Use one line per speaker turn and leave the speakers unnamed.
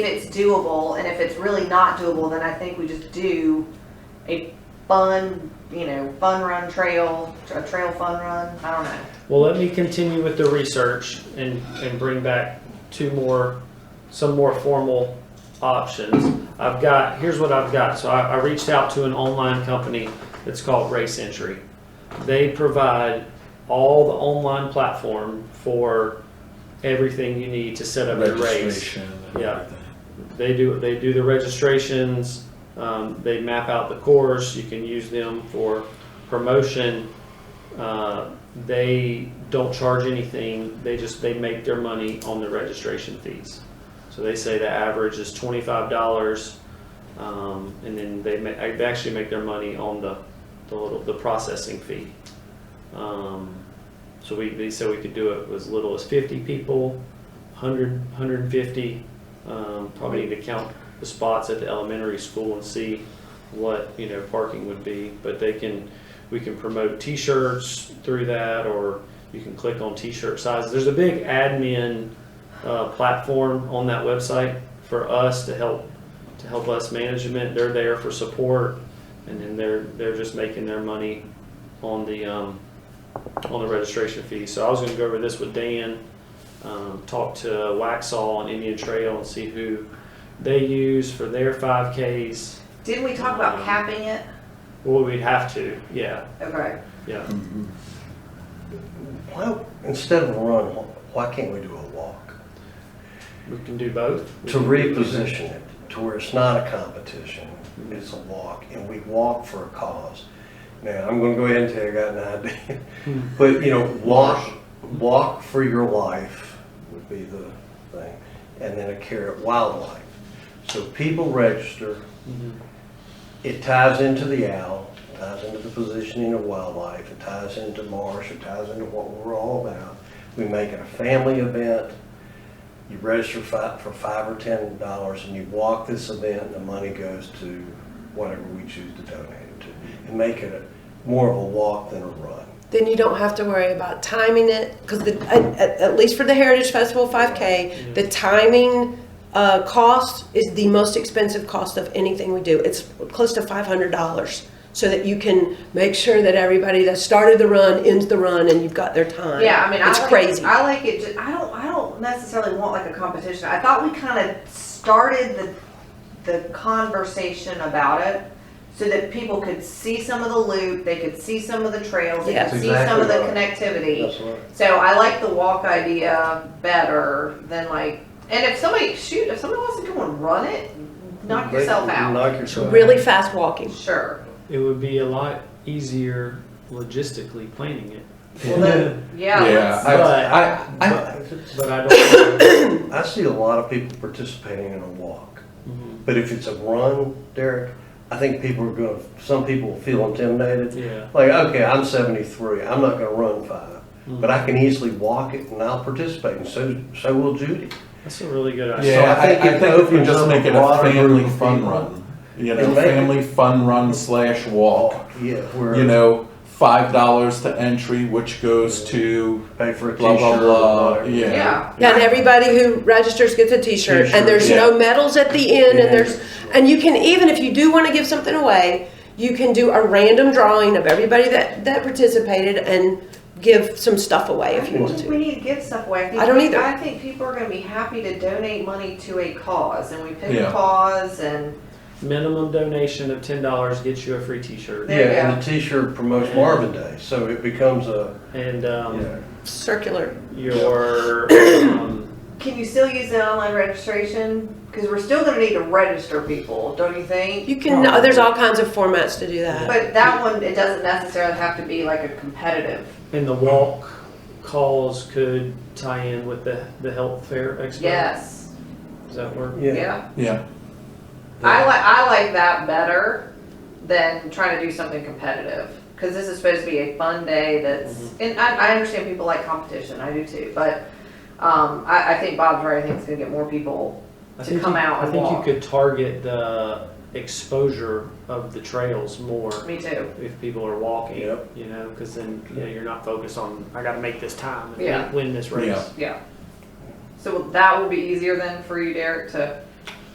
it's doable, and if it's really not doable, then I think we just do a fun, you know, fun run trail, a trail fun run, I don't know.
Well, let me continue with the research and, and bring back two more, some more formal options. I've got, here's what I've got. So I, I reached out to an online company that's called Race Entry. They provide all the online platform for everything you need to set up your race.
registration and
Yeah.
everything.
They do, they do the registrations, um, they map out the course, you can use them for promotion. Uh, They don't charge anything, they just, they make their money on the registration fees. So they say the average is twenty-five dollars, um, and then they ma, they actually make their money on the, the little, the processing fee. Um, So we, they said we could do it with as little as fifty people, hundred, hundred and fifty, um, probably need to count the spots at the elementary school and see what, you know, parking would be, but they can, we can promote t-shirts through that, or you can click on t-shirt sizes. There's a big admin, uh, platform on that website for us to help, to help us management. They're there for support, and then they're, they're just making their money on the, um, on the registration fee. So I was gonna go over this with Dan, um, talk to Waxaw and Indian Trail and see who they use for their five Ks.
Didn't we talk about capping it?
Well, we'd have to, yeah,
Okay.
yeah.
Hmm. Well, instead of a run, why can't we do a walk?
We can do both. We
To
can-
reposition it to where it's not a competition, it's a walk, and we walk for a cause. Now, I'm gonna go ahead and tell you, I got an idea, but you know, walk, walk for your life would be the thing. And then a carrot wildlife. So people register,
Mhm.
it ties into the owl, it ties into the positioning of wildlife, it ties into marsh, it ties into what we're all about. We make it a family event. You register fi- for five or ten dollars and you walk this event and the money goes to whatever we choose to donate it to. And make it a, more of a walk than a run.
Then you don't have to worry about timing it because at, at, at least for the Heritage Festival 5K, the timing uh, cost is the most expensive cost of anything we do. It's close to $500 so that you can make sure that everybody that started the run ends the run and you've got their time.
Yeah, I mean, I
it's
like,
crazy.
I like it. ju- I don't. I don't necessarily want like a competition. I thought we kind of started the the conversation about it so that people could see some of the loop, they could see some of the trails, they
Yes.
could see some of the connectivity.
That's right.
So I like the walk idea better than like. And if somebody shoot, if somebody wants to come and run it, knock yourself out.
Knock yourself
really fast walking.
Sure.
It would be a lot easier logistically planning it,
Well, then, yeah.
Yeah,
let's-
I, I, I,
out.
but I don't.
I see a lot of people participating in a walk,
Mhm.
but if it's a run, Derek, I think people are gonna, some people will feel intimidated.
Yeah.
Like, okay, I'm seventy-three, I'm not gonna run five,
Hmm.
but I can easily walk it and I'll participate, and so, so will Judy.
That's a really good idea.
So I
yeah, I,
think
I
it
think if you
opens up
just make
a
it a
broader group
family
of
fun
people.
run, you
And
know,
make it-
family fun run slash walk,
Yeah,
you
where
know, five dollars to entry, which goes to
pay for a
blah,
t-shirt
blah,
or
blah,
whatever.
yeah.
Yeah.
Yeah, and everybody who registers gets a T-shirt,
T-shirt,
and there's
yeah.
no medals at the end,
Yeah.
and there's and you can even if you do want to give something away, you can do a random drawing of everybody that that participated and give some stuff away
I
if you
don't
want
think
to.
we need to give stuff away. think
I don't
we-
either.
I think people are gonna be happy to donate money to a cause, and we pick a
Yeah.
cause, and
Minimum donation of ten dollars gets you a free T-shirt,
There you
Yeah,
go.
and the t-shirt promotes Marvin Day, so it becomes a,
and
you
um,
know,
Circular.
your um,
can you still use the online registration? Because we're still gonna need to register people, don't you think?
You can. There's all kinds of formats to do that.
But that one, it doesn't necessarily have to be like a competitive.
and the walk calls could tie in with the the health fair expo.
Yes,
Does that work?
yeah.
yeah.
Yeah,
I like, I like that better than trying to do something competitive. Because this is supposed to be a fun day that's, and I, I understand people like competition, I do too, but, um, I, I think Bob's right, I think it's gonna get more people
I
to
think
come
you,
out
I
and
think
walk.
you could target the exposure of the trails more
Me too.
if people are walking.
Yep.
You know, because then you know, you're not focused on I got to make this time and
Yeah.
win this race.
Yeah.
Yeah. So that will be easier then for you, Derek, to